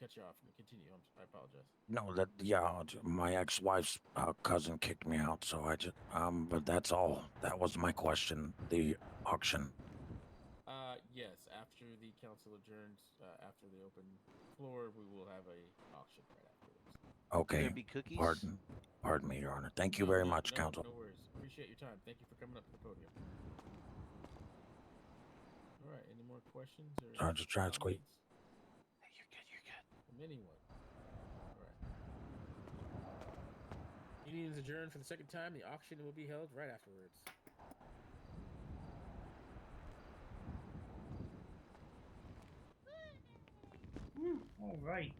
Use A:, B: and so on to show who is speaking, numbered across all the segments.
A: cut you off. Continue. I'm, I apologize.
B: No, that yeah, it's- my ex-wife's uh, cousin kicked me out, so I just um. But that's all. That was my question. The auction.
A: Uh, yes. After the council adjourns, uh, after the open floor, we will have a auction right afterwards.
C: Will
B: Okay.
C: there be cookies?
B: Pardon. Pardon me, Your Honor. Thank you
A: No,
B: very
A: no,
B: much,
A: no,
B: Counsel.
A: No worries. Appreciate your time. Thank you for coming up to the podium. All right. Any more questions? Or
B: Sorry, just trying to squeak.
A: comments
C: Hey, You're good. You're good.
A: From anyone? All right. Meeting is adjourned for the second time. The auction will be held right afterwards.
D: All right.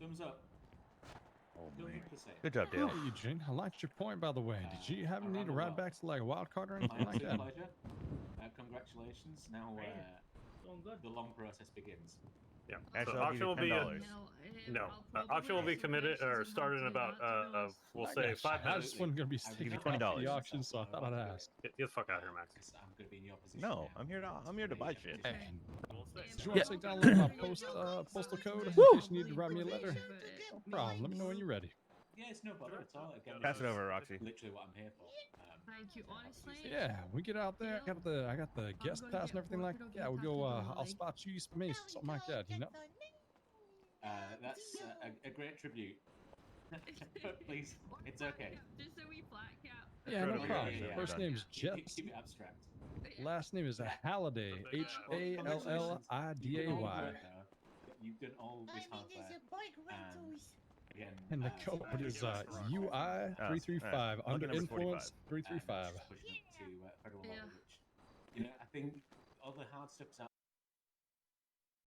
E: Thumbs up.
B: Oh,
E: Don't be
B: man.
E: pissy.
F: Good job, Dale.
G: Hello, Eugene. I liked your point, by the way.
E: Uh,
G: Did you happen
E: I
G: to need a
E: rather not.
G: ride back to like a wild card or
E: My
G: anything like
E: absolute
G: that?
E: pleasure. Uh, congratulations. Now
D: Brilliant.
E: uh,
D: Going good.
E: the long process begins.
F: Yeah.
H: So
F: Actually, I'll give
H: auction will
F: you
H: be
F: ten
H: a-
F: dollars.
H: No, uh, auction will be committed or started in about, uh, uh, we'll
G: I
H: say
G: got
H: five
G: you. I
H: minutes.
G: just wasn't gonna be
E: I
G: sticking
E: really
G: around for
E: appreciate
F: $20
G: the
E: that,
G: auction, so I
E: but
G: thought I'd
E: uh,
G: ask.
H: Get, get the fuck out of here, Max.
E: 'cause I'm going to be in your position.
F: No,
E: now.
F: I'm here to I'm here to buy shit.
E: Hey.
G: Did you want to take down a little post, uh, postal code in case you need to write me a letter? No problem. Let me know when you're ready.
E: Yeah, it's no bother at all. Again,
F: Pass
E: this
F: it
E: is
F: over, Roxy.
E: Literally what I'm here for. Um,
I: Thank you,
E: so obviously-
I: honestly.
G: Yeah, we get out there. I got the I got the guest
I: gonna
G: pass
I: get
G: and everything like
I: work, it'll
G: Yeah,
I: get
G: we go.
I: back
G: Uh,
I: to the
G: I'll
I: lake.
G: spot you, me, something like that. You know.
E: Uh, that's uh, a, a great tribute. Please, it's okay.
I: Just a wee black cap.
G: Yeah, no
F: Incredible.
G: problem.
E: Yeah, yeah,
G: First
F: yeah.
G: name's
E: Keep-
G: Jets.
E: Keep it abstract.
G: Last name is a Halliday.
H: Yeah.
G: H A L L I D A Y.
E: You've done all this hard work. Again,
G: And the
E: uh, so
G: code
E: thank you
G: is
E: very
G: uh,
E: much for
G: UI
E: your time.
G: three three five
F: Lucky
G: under
F: number
G: influence three
E: um,
G: three five.
E: just pushing it to uh, federal
I: Yeah.
E: level, which, you know, I think all the hard stuff's